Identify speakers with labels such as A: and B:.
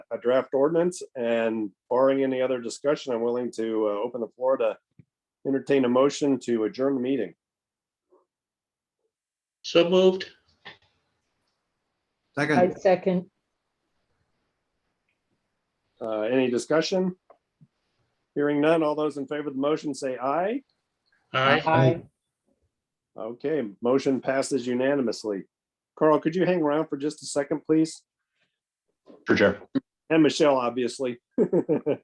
A: a draft ordinance and barring any other discussion, I'm willing to uh, open the floor to entertain a motion to adjourn the meeting.
B: So moved.
C: I
D: Second,
C: second.
A: Uh, Any discussion? Hearing none, all those in favor of the motion say aye.
B: Aye.
C: Aye.
A: Okay, motion passes unanimously. Carl, could you hang around for just a second, please?
E: For sure.
A: And Michelle, obviously.